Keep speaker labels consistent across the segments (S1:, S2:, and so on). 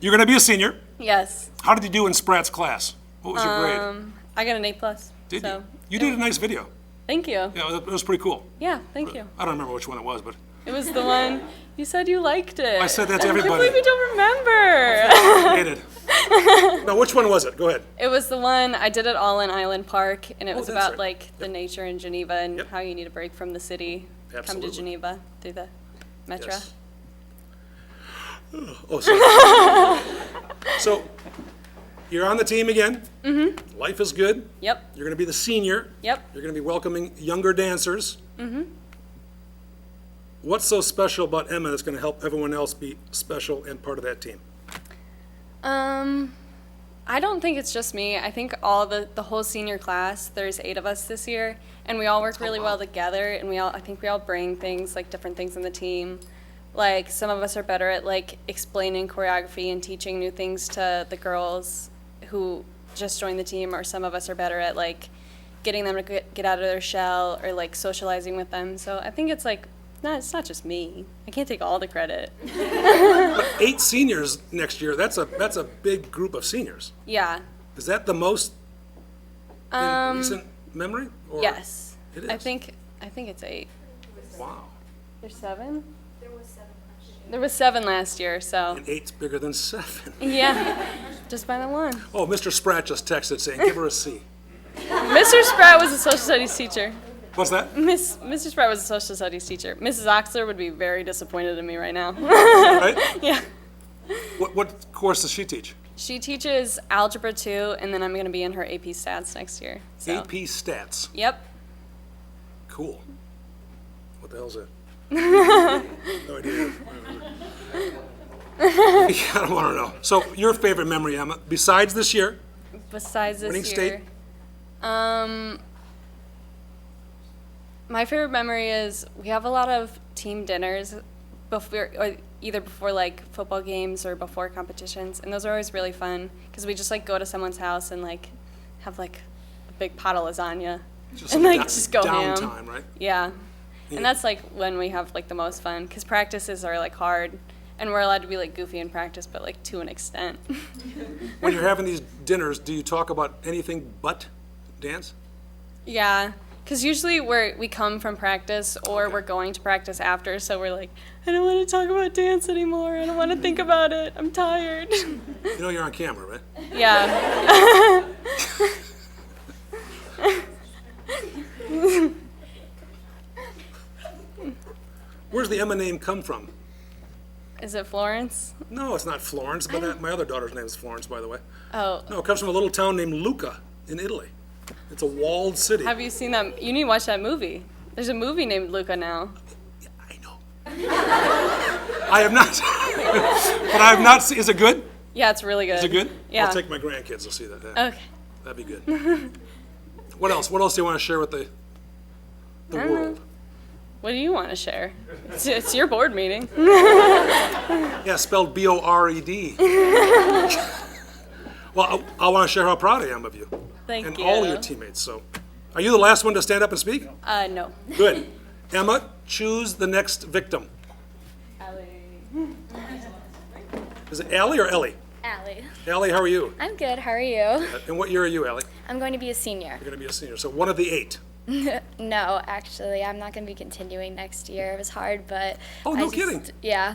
S1: You're going to be a senior.
S2: Yes.
S1: How did you do in Spratt's class? What was your grade?
S2: Um, I got an A plus.
S1: Did
S2: so
S1: you? You did a nice video.
S2: Thank you.
S1: Yeah, it was pretty cool.
S2: Yeah, thank you.
S1: I don't remember which one it was, but
S2: It was the one you said you liked it.
S1: I said that to
S2: I can't
S1: everybody.
S2: believe you don't remember.
S1: I did. No, which one was it? Go ahead.
S2: it was the one I did at All in Island Park, and it was
S1: Oh, that's
S2: about
S1: right.
S2: like the nature in Geneva and
S1: Yep.
S2: how you need a break from the city. Come
S1: Absolutely.
S2: to Geneva through the metro.
S1: Yes. Oh, sorry. So, you're on the team again. Mm-hmm. Life is good.
S2: Yep.
S1: You're going to be the senior.
S2: Yep.
S1: You're going to be welcoming younger dancers. Mm-hmm. What's so special about Emma that's going to help everyone else be special and part of that team?
S2: Um, I don't think it's just me. I think all the the whole senior class. There's eight of us this year, and we all work really well together. And we all, I think, we all bring things like different things in the team. Like some of us are better at like explaining choreography and teaching new things to the girls who just joined the team, or some of us are better at like getting them to get, get out of their shell or like socializing with them. So I think it's like, no, it's not just me. I can't take all the credit.
S1: Eight seniors next year. That's a that's a big group of seniors.
S2: Yeah,
S1: Is that the most in recent memory? Or-
S2: Um, Yes.
S1: It
S2: I
S1: is.
S2: think I think it's eight.
S1: Wow.
S2: There's seven? There was seven last year, so
S1: And eight's bigger than seven.
S2: yeah. Just by the one.
S1: Oh, Mr. Spratt just texted saying, give her a C.
S2: Mr. Sprout was a social studies teacher.
S1: What's that?
S2: Miss Mr. Sprout was a social studies teacher. Mrs. Oxler would be very disappointed in me right now.
S1: Right?
S2: yeah.
S1: What, what course does she teach?
S2: She teaches algebra two and then I'm gonna be in her AP stats next year. So
S1: AP Stats.
S2: Yep.
S1: Cool. What the hell's that? No idea. Yeah, I don't want to know. So your favorite memory, Emma, besides this year?
S2: Besides this
S1: Winning
S2: year.
S1: state?
S2: Um, my favorite memory is we have a lot of team dinners before, or either before like football games or before competitions, and those are always really fun because we just like go to someone's house and like have like a big pot of lasagna
S1: Just
S2: and like
S1: down-
S2: just go ham.
S1: Downtime, right?
S2: Yeah.
S1: Yeah.
S2: And that's like when we have like the most fun because practices are like hard and we're allowed to be like goofy in practice, but like to an extent.
S1: When you're having these dinners, do you talk about anything but dance?
S2: Yeah, because usually we're we come from practice or we're going to practice after, so we're like, I don't want to talk about dance anymore. I don't want to think about it. I'm tired.
S1: You know you're on camera, right?
S2: yeah,
S1: Where's the Emma name come from?
S2: is it Florence?
S1: No, it's not Florence, but that, my other daughter's name is Florence, by the way.
S2: Oh,
S1: No, it comes from a little town named Lucca in Italy. It's a walled city.
S2: have you seen that? You need to watch that movie. There's a movie named Luca now.
S1: I know. I have not, but I have not. se- Is it good?
S2: Yeah, it's really good.
S1: Is it good?
S2: Yeah.
S1: I'll take my grandkids to see that. yeah.
S2: okay.
S1: That'd be good. what else? What else do you want to share with the the world?
S2: What do you want to share? It's, it's your board meeting.
S1: Yeah, spelled B O R E D. well, I, I want to share how proud I am of you
S2: Thank
S1: and
S2: you.
S1: all your teammates. So, are you the last one to stand up and speak?
S2: Uh, no.
S1: Good. Emma, choose the next victim. Is it Allie or Ellie?
S3: Allie.
S1: Allie, how are you?
S3: I'm good. How are you?
S1: And what year are you, Allie?
S3: I'm going to be a senior.
S1: You're going to be a senior. So one of the eight.
S3: No, actually, I'm not going to be continuing next year. It was hard, but
S1: Oh,
S3: I
S1: no
S3: just-
S1: kidding.
S3: Yeah.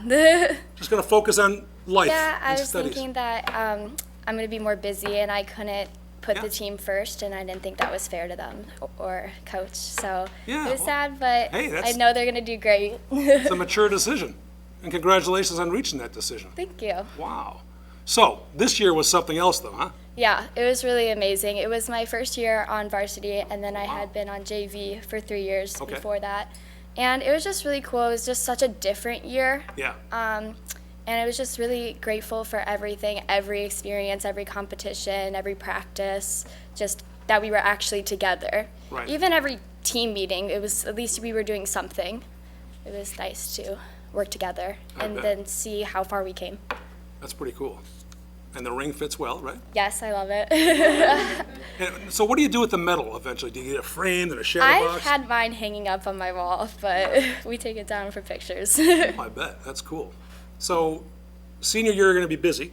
S1: Just going to focus on life
S3: yeah, I
S1: and
S3: was
S1: studies.
S3: thinking that um, I'm going to be more busy, and I couldn't put
S1: Yeah.
S3: the team first, and I didn't think that was fair to them o- or coach. So
S1: Yeah,
S3: it was
S1: well,
S3: sad, but
S1: hey,
S3: I
S1: that's-
S3: know they're going to do great.
S1: It's a mature decision. And congratulations on reaching that decision.
S3: Thank you.
S1: Wow. So this year was something else, though, huh?
S3: Yeah, it was really amazing. It was my first year on varsity, and then I had been on JV for three years
S1: Okay.
S3: before that. And it was just really cool. It was just such a different year.
S1: Yeah.
S3: Um, and I was just really grateful for everything every experience, every competition, every practice, just that we were actually together.
S1: Right.
S3: Even every team meeting, it was at least we were doing something. It was nice to work together
S1: I
S3: and
S1: bet.
S3: then see how far we came.
S1: That's pretty cool. And the ring fits well, right?
S3: Yes, I love it.
S1: And so what do you do with the medal eventually? Do you get it framed in a shadow
S3: I've
S1: box?
S3: had mine hanging up on my wall, but we take it down for pictures.
S1: I bet. That's cool. So senior year, you're going to be busy.